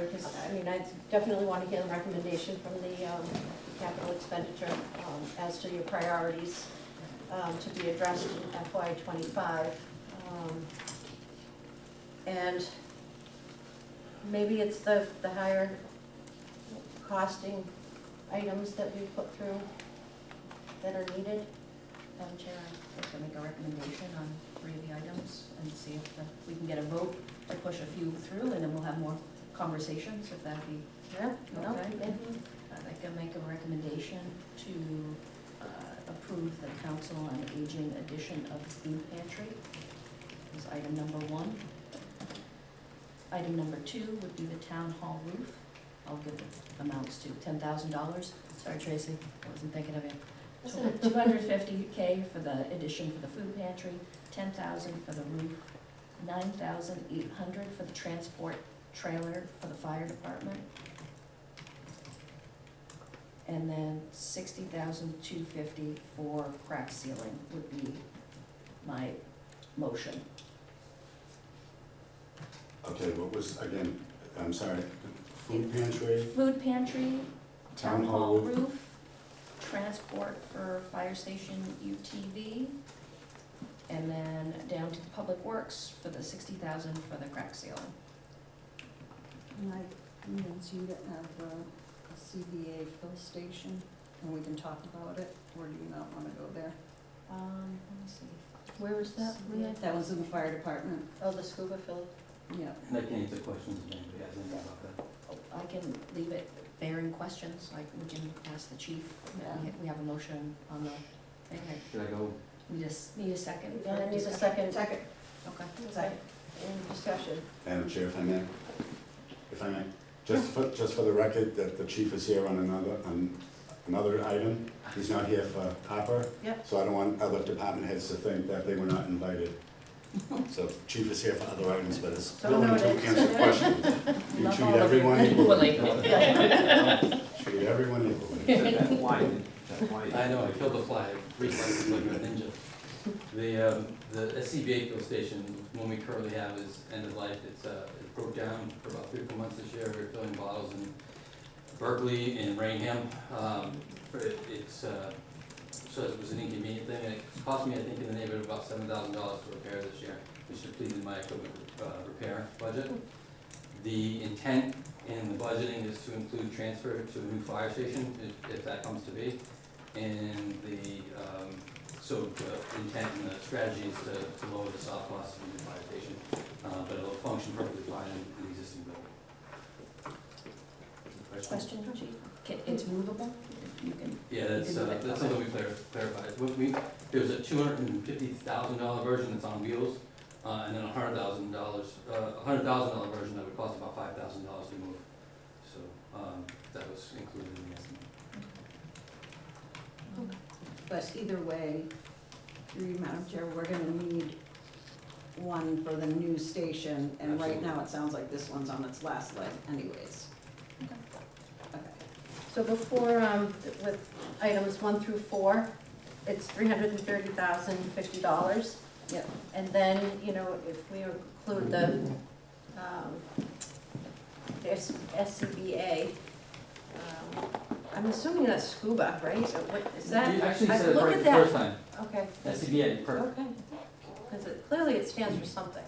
Because, I mean, I definitely want to hear the recommendation from the um, capital expenditure um, as to your priorities um, to be addressed in FY twenty-five. Um, And maybe it's the, the higher costing items that we put through that are needed. Madam Chair, I'd like to make a recommendation on three of the items and see if the- we can get a vote to push a few through, and then we'll have more conversations, if that'd be, Yeah. no, Okay. yeah. I'd uh, like to make a recommendation to uh, approve the Council on Aging addition of food pantry, is item number one. Item number two would be the town hall roof. I'll give the amounts to ten thousand dollars. Sorry, Tracy, I wasn't thinking of you. Two hundred fifty K for the addition for the food pantry, ten thousand for the roof, nine thousand eight hundred for the transport trailer for the fire department. And then sixty thousand two fifty for crack sealing would be my motion. Okay, what was, again, I'm sorry, food pantry, Food pantry, town hall roof. roof, transport for fire station UTV, and then down to the public works for the sixty thousand for the crack sealing. And I emailed you to have uh, a CBA fill station, and we can talk about it, or do you not wanna go there? Um, let me see. Where is that? Renee? That was in the fire department, Oh, the scuba field. yeah. And I can answer questions if anybody has anything about that. Oh, I can leave it there in questions, like we can ask the chief, that we- we have a motion on the, okay, Should I go? we just need a second. for Yeah, I need a discussion. second. Second. Okay. Second. Any discussion? Madam Chair, if I may, if I may, just for, just for the record, that the chief is here on another, on another item, he's not here for copper. Yep. So I don't want other department heads to think that they were not invited. So chief is here for other items, but is So willing to noted. answer questions. You Love treat all of you. everyone equally, That's treat everyone equally. why, that's why. I know, I killed a fly, three slices like a ninja. The, um, the SCBA fill station, one we currently have is end of life, it's, uh, it broke down for about three, or four months this year, we were filling bottles in Berkeley and Rainham. Um, for it- it's, uh, so it was an inconvenient thing, and it cost me, I think, in the neighborhood of about seven thousand dollars to repair this year, which depleted my equipment, uh, repair budget. The intent in the budgeting is to include transfer to a new fire station, if, if that comes to be. And the, um, so the intent and the strategy is to, to lower the soft cost of the new fire station, uh, but it'll function perfectly fine in the existing building. Question, chief? Ca- It's movable? You can, Yeah, that's, You can uh, do it. that's something we clar- clarified. We, we, there was a two hundred and fifty thousand dollar version that's on wheels, uh, and then a hundred thousand dollars, uh, a hundred thousand dollar version that would cost about five thousand dollars to move. So, um, that was included in the estimate. But either way, through you, Madam Chair, we're gonna need one for the new station, and right Absolutely. now it sounds like this one's on its last leg anyways. Okay. Okay. So before, um, with items one through four, it's three hundred and thirty thousand fifty dollars. Yep. And then, you know, if we include the, um, this SCBA, um, I'm assuming that's scuba, right? Or What, is that? You actually I- said it look right at the that. first time. Okay, SCBA, perfect. okay. Because it, clearly it stands for something.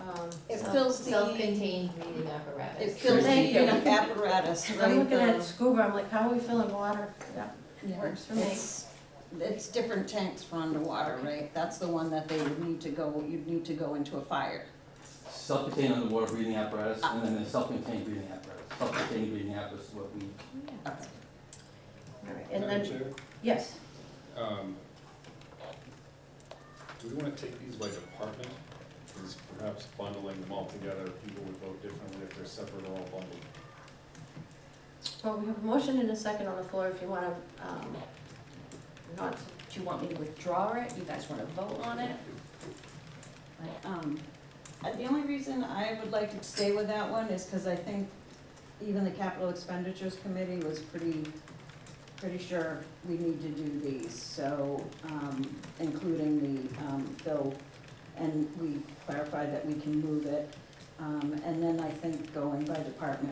Um, It so- fills the, Self-contained breathing it apparatus. fills Thank the you. apparatus, right? I'm looking the- at scuba, I'm like, how are we filling water? Yeah, Yeah, Works for me. It's it's different tanks for underwater, right? That's the one that they would need to go, you'd need to go into a fire. Self-contained underwater breathing apparatus, and then the self-contained breathing apparatus. Self-contained breathing apparatus is what we, all right, and Madam then, Chair, yes. um, Do we want to take these by department? Is perhaps bundling them all together, people would vote differently if they're separate or all bundled. Well, we have a motion and a second on the floor if you want to, um, not, do you want me to withdraw it? You guys wanna vote on it? But, um, uh, The only reason I would like to stay with that one is because I think even the capital expenditures committee was pretty, pretty sure we need to do these, so, um, including the, um, bill. And we clarified that we can move it. Um, and then I think going by department